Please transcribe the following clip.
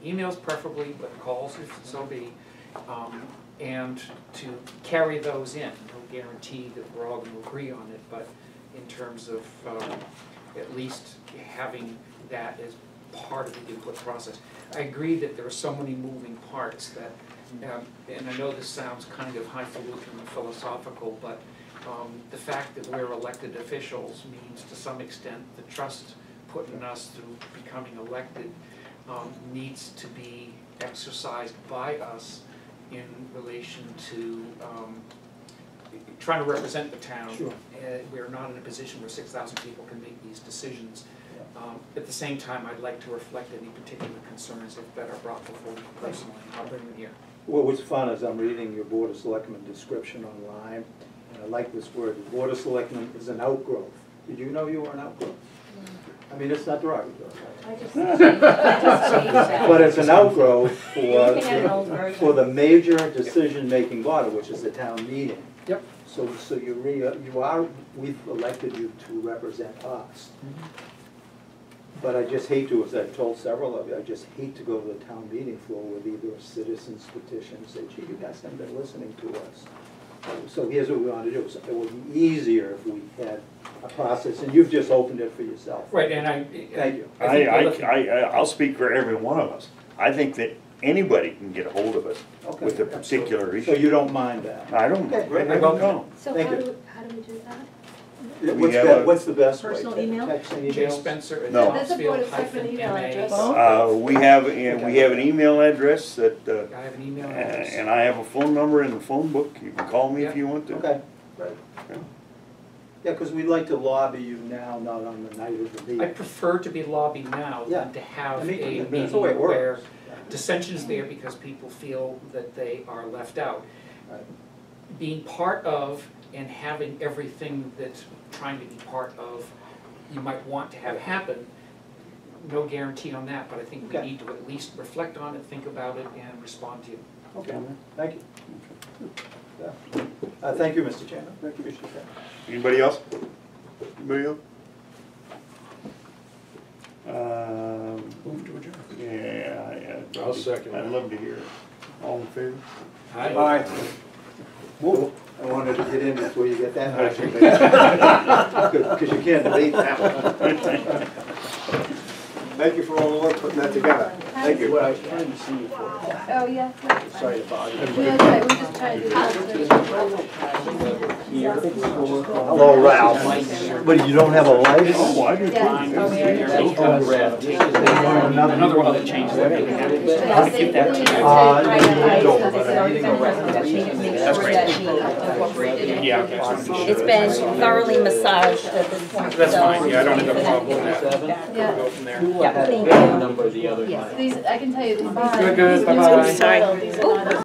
emails preferably, but calls if so be, um, and to carry those in. No guarantee that we're all gonna agree on it, but in terms of, um, at least having that as part of the input process. I agree that there are so many moving parts that, um, and I know this sounds kind of highfalutin and philosophical, but um, the fact that we're elected officials means to some extent the trust put in us through becoming elected um, needs to be exercised by us in relation to um, trying to represent the town. Sure. Uh, We're not in a position where six thousand people can make these decisions. Um, At the same time, I'd like to reflect any particular concerns if that are brought before me personally, I'll bring them here. What was fun is I'm reading your Board of Selectmen description online, and I like this word, the Board of Selectmen is an outgrowth. Did you know you were an outgrowth? I mean, it's not derogatory, I just changed, I just changed that. but it's an outgrowth You're looking at an for, old version. for the major decision-making body, which is the town meeting. Yep. So, so you re, you are, we've elected you to represent us. But I just hate to, as I've told several of you, I just hate to go to the town meeting floor with either a citizens petition, and say, gee, you guys haven't been listening to us. So here's what we want to do, So it would be easier if we had a process, and you've just opened it for yourself. Right, and I. Thank you. I, I, I, I'll speak for every one of us. I think that anybody can get a hold of us Okay. with Uh, a particular So issue. you don't mind that? I don't, I Okay, great. don't know. So Thank how you. do, how do we do that? What's have the, a- what's the best way? Personal Te- email? Text and Jay email? Spencer at No. There's a Topsfield Board of Selectmen hyphen email MA. address. Uh, we have, and we have an email address that, uh, I have an email address. and I have a phone number in the phone book. You can call me if you want to. Okay, right. Yeah, because we'd like to lobby you now, not on the night of the I meeting. prefer to be lobby now Yeah. than to have I a mean, meeting that's the way it works. where dissension's there because people feel that they are left out. Right. Being part of and having everything that's trying to be part of, you might want to have happen, no guarantee on that, but I think we Okay. need to at least reflect on it, think about it, and respond to it. Okay, thank you. Yeah. Uh, thank you, Mr. Chairman, I appreciate that. Anybody else? Anybody else? Um, Move to adjourn. yeah, yeah. I'll second I'd that. love to hear. it. All in favor? Hi. I wanted to get in before you get that motion. Because you can't debate that one. Thank you for all the work putting that together. Thank you. I was trying to see you for, Oh, yeah. sorry to bother you. No, that's right, we're just trying to do this. Hello, Ralph. But you don't have a light? Oh, I do. Yeah. too. Another one that changes that we have. Yeah, so you really need to Uh, write it out, don't. because it's already been written. Make sure that we incorporated it. Yeah, okay. It's been thoroughly massaged at this point, so. That's fine, yeah, I don't have a problem with that. Yeah, Yeah, thank you. these, I can tell you, these. Good, good, these new bye-bye. ones, these are not-